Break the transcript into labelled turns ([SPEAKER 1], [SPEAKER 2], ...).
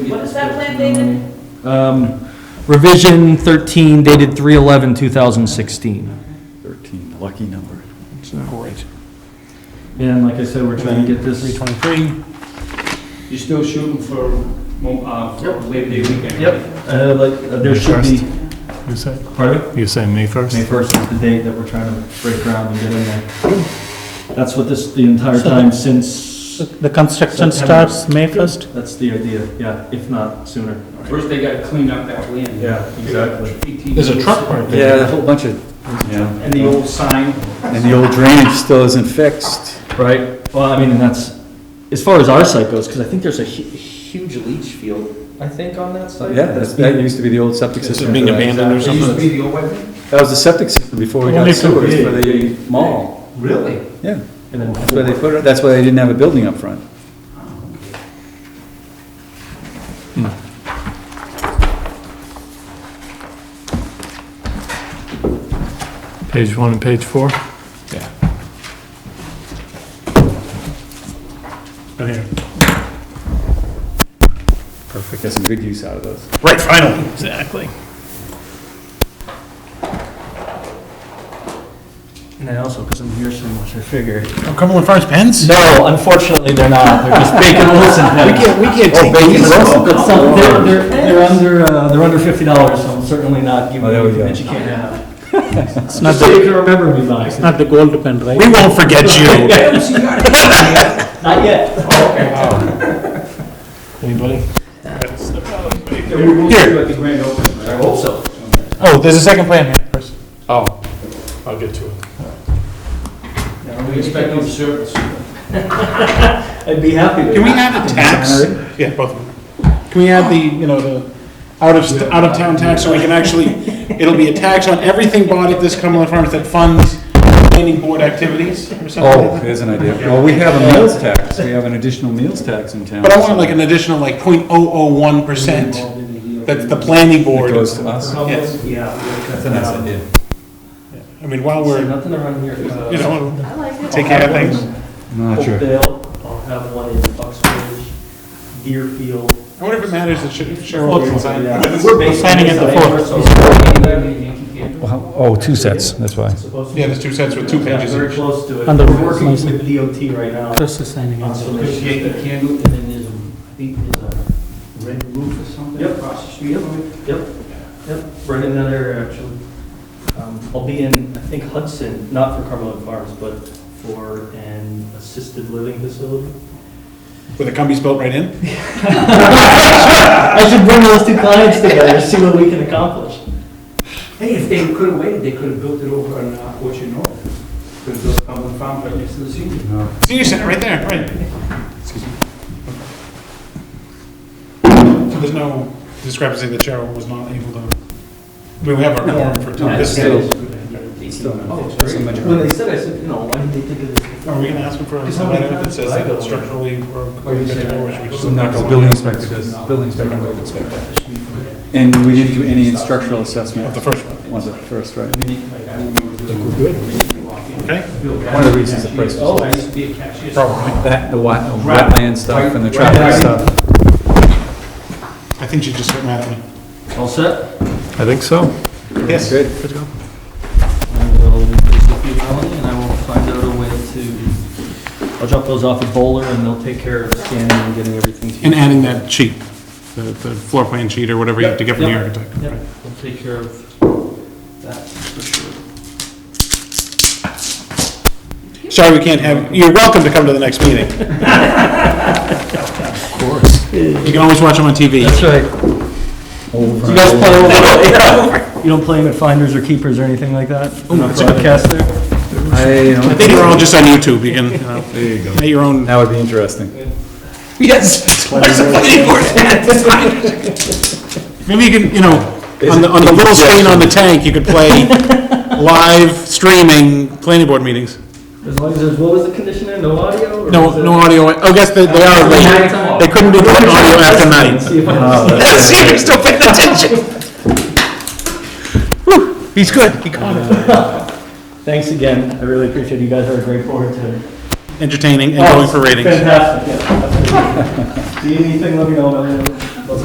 [SPEAKER 1] What is that plan dated?
[SPEAKER 2] Um, Revision 13 dated 3/11/2016.
[SPEAKER 3] 13, lucky number.
[SPEAKER 4] It's not right.
[SPEAKER 2] And like I said, we're trying to get
[SPEAKER 4] Three
[SPEAKER 2] this.
[SPEAKER 4] twenty-three,
[SPEAKER 5] You're still shooting for, mo- uh, for Labor Day weekend? right?
[SPEAKER 2] Yep, uh, like, uh, there should be,
[SPEAKER 4] you say,
[SPEAKER 2] pardon?
[SPEAKER 4] you say May
[SPEAKER 2] May
[SPEAKER 4] first?
[SPEAKER 2] 1st is the date that we're trying to break ground and get in there. That's what this, the entire time since,
[SPEAKER 6] The construction
[SPEAKER 2] September.
[SPEAKER 6] starts May 1st?
[SPEAKER 2] that's the idea, yeah, if not sooner.
[SPEAKER 5] First, they gotta clean up that land.
[SPEAKER 2] Yeah, exactly.
[SPEAKER 5] exactly.
[SPEAKER 4] There's a truck parked there.
[SPEAKER 3] Yeah, a whole bunch of, yeah,
[SPEAKER 2] And the old sign?
[SPEAKER 3] and the old drainage still isn't fixed.
[SPEAKER 2] Right, well, I mean, and that's, as far as our site goes, because I think there's a hu- huge leach field, I think, on that site.
[SPEAKER 3] Yeah, that's- that used to be the old septic
[SPEAKER 4] Is it
[SPEAKER 3] system.
[SPEAKER 4] being
[SPEAKER 3] for that.
[SPEAKER 4] abandoned or
[SPEAKER 5] It used to be the old one.
[SPEAKER 3] That was the septic system before we
[SPEAKER 4] Only
[SPEAKER 3] got
[SPEAKER 4] so
[SPEAKER 3] sewers
[SPEAKER 4] big.
[SPEAKER 3] for the mall.
[SPEAKER 5] Really?
[SPEAKER 3] Yeah,
[SPEAKER 2] And then,
[SPEAKER 3] that's why they put it, that's why they didn't have a building up front.
[SPEAKER 4] Hmm. Page one and page four? Yeah. Right here.
[SPEAKER 3] Perfect. Get some good use out of those.
[SPEAKER 4] Right, finally. Exactly.
[SPEAKER 2] and then also, because I'm here so much, I figure.
[SPEAKER 4] Oh, Cumberland Farms pens?
[SPEAKER 2] No, unfortunately, they're not, they're just Bacon Wilson
[SPEAKER 4] We
[SPEAKER 2] pens.
[SPEAKER 4] can't, we can't
[SPEAKER 3] Oh,
[SPEAKER 4] take
[SPEAKER 3] baby,
[SPEAKER 4] these.
[SPEAKER 3] Wilson.
[SPEAKER 2] But some, they're, they're, they're under, uh, they're under fifty dollars, so I'm certainly not giving
[SPEAKER 3] Oh, there we
[SPEAKER 2] you
[SPEAKER 3] go.
[SPEAKER 2] that you can't have.
[SPEAKER 6] It's not
[SPEAKER 2] So you
[SPEAKER 6] the,
[SPEAKER 2] can remember me by,
[SPEAKER 6] it's not the gold pen, right?
[SPEAKER 4] We won't forget you.
[SPEAKER 2] not yet. Oh,
[SPEAKER 4] Anybody?
[SPEAKER 5] They were moving
[SPEAKER 4] Here.
[SPEAKER 5] to like the grand opening, right?
[SPEAKER 2] I hope so.
[SPEAKER 4] Oh, there's a second plan here, Chris. Oh, I'll get to it.
[SPEAKER 5] We expect no service.
[SPEAKER 2] I'd be happy to.
[SPEAKER 4] Can we add a tax? Yeah, both of them. Can we add the, you know, the out of, out of town tax, so we can actually, it'll be a tax on everything bought at this Cumberland Farms that funds planning board activities or something
[SPEAKER 3] Oh,
[SPEAKER 4] like that?
[SPEAKER 3] there's an idea. Well, we have a meals tax, we have an additional meals tax in town.
[SPEAKER 4] But I want like an additional like point oh oh one percent that's the planning
[SPEAKER 3] It
[SPEAKER 4] board.
[SPEAKER 3] goes to us.
[SPEAKER 4] Yes.
[SPEAKER 2] Yeah.
[SPEAKER 3] That's a nice idea.
[SPEAKER 4] I mean, while
[SPEAKER 2] Say
[SPEAKER 4] we're,
[SPEAKER 2] nothing around here. Uh,
[SPEAKER 4] you know,
[SPEAKER 1] I like it.
[SPEAKER 4] take care of things.
[SPEAKER 3] I'm Not sure.
[SPEAKER 2] Hopedale, I'll have one in Uxbridge, Deerfield.
[SPEAKER 4] I wonder if it matters that Sher- Cheryl. can sign
[SPEAKER 2] Yeah.
[SPEAKER 4] it.
[SPEAKER 6] We're signing at the fourth.
[SPEAKER 3] Oh, two sets, that's why.
[SPEAKER 2] Supposed to-
[SPEAKER 4] Yeah, there's two sets with two
[SPEAKER 2] Yeah,
[SPEAKER 4] pages
[SPEAKER 2] Very
[SPEAKER 4] each.
[SPEAKER 2] close to it.
[SPEAKER 6] Under-
[SPEAKER 2] We're working with DOT right now.
[SPEAKER 6] Chris is signing
[SPEAKER 2] on
[SPEAKER 6] it.
[SPEAKER 2] some
[SPEAKER 5] Because you get
[SPEAKER 2] issues
[SPEAKER 5] the
[SPEAKER 2] there.
[SPEAKER 5] candle, and then there's, a- I think there's a red roof or something
[SPEAKER 2] Yep.
[SPEAKER 5] across the street from it.
[SPEAKER 2] Yep, yep, right in that area, actually. Um, I'll be in, I think Hudson, not for Cumberland Farms, but for an assisted living facility.
[SPEAKER 4] With the companies built right in?
[SPEAKER 2] I should bring those two clients together, see what we can accomplish.
[SPEAKER 5] Hey, if they could've waited, they could've built it over on uh, Orchard North. Could've built Cumberland Farm right next to the senior.
[SPEAKER 4] Senior Center, right there, right. So there's no discrepancy that Cheryl was not able to, we have our quorum for
[SPEAKER 5] No,
[SPEAKER 4] time. This
[SPEAKER 5] that
[SPEAKER 4] is-
[SPEAKER 5] is a good idea.
[SPEAKER 3] Still not.
[SPEAKER 5] Oh, it's
[SPEAKER 3] That's a
[SPEAKER 5] great.
[SPEAKER 3] majority.
[SPEAKER 2] When they said, I said, you know, why didn't they think of this?
[SPEAKER 4] Are we gonna ask them for a letter that says that structurally or?
[SPEAKER 2] Or you said-
[SPEAKER 3] So not go building inspector, does building inspector, building inspector. And we didn't do any structural assessment
[SPEAKER 4] The first one,
[SPEAKER 3] on the first, right?
[SPEAKER 4] okay?
[SPEAKER 3] One of the reasons the price was
[SPEAKER 5] Oh, I
[SPEAKER 3] low.
[SPEAKER 5] used to be a cashier.
[SPEAKER 4] Probably.
[SPEAKER 3] That, the wet- wetland stuff and the traffic stuff.
[SPEAKER 4] I think she just got mad at me.
[SPEAKER 2] All set?
[SPEAKER 4] I think so. Yes.
[SPEAKER 3] Good.
[SPEAKER 4] Good to go.
[SPEAKER 2] I will visit you, Melanie, and I will find out a way to, I'll drop those off at Bowler and they'll take care of scanning and getting everything to you.
[SPEAKER 4] And adding that sheet, the, the floor plan sheet or whatever you have to get from the
[SPEAKER 2] Yep,
[SPEAKER 4] architect.
[SPEAKER 2] Yep,
[SPEAKER 4] right?
[SPEAKER 2] we'll take care of that for sure.
[SPEAKER 4] Sorry, we can't have, you're welcome to come to the next meeting. Of course. You can always watch them on TV.
[SPEAKER 2] right. You guys play over? You don't play them at Finders or Keepers or anything like that? No
[SPEAKER 4] that's a good-
[SPEAKER 2] broadcast there?
[SPEAKER 3] I
[SPEAKER 4] I
[SPEAKER 3] don't,
[SPEAKER 4] think we're all just on YouTube, you can, you know, make your own.
[SPEAKER 3] that would be interesting.
[SPEAKER 4] Yes. Maybe you can, you know, on the, on the little screen on the tank, you could play live streaming planning board meetings.
[SPEAKER 2] As long as there's, what was the conditioner, no audio? or was
[SPEAKER 4] No,
[SPEAKER 2] it-
[SPEAKER 4] no audio, oh, guess they, they are late. They couldn't do the audio after nine.
[SPEAKER 2] See if I
[SPEAKER 4] See if you're still paying attention. Whew, He's good, he caught it.
[SPEAKER 2] Thanks again, I really appreciate it, you guys are a great board to.
[SPEAKER 4] Entertaining and going for ratings.
[SPEAKER 2] Fantastic, yeah. absolutely. Need anything, let me know, man.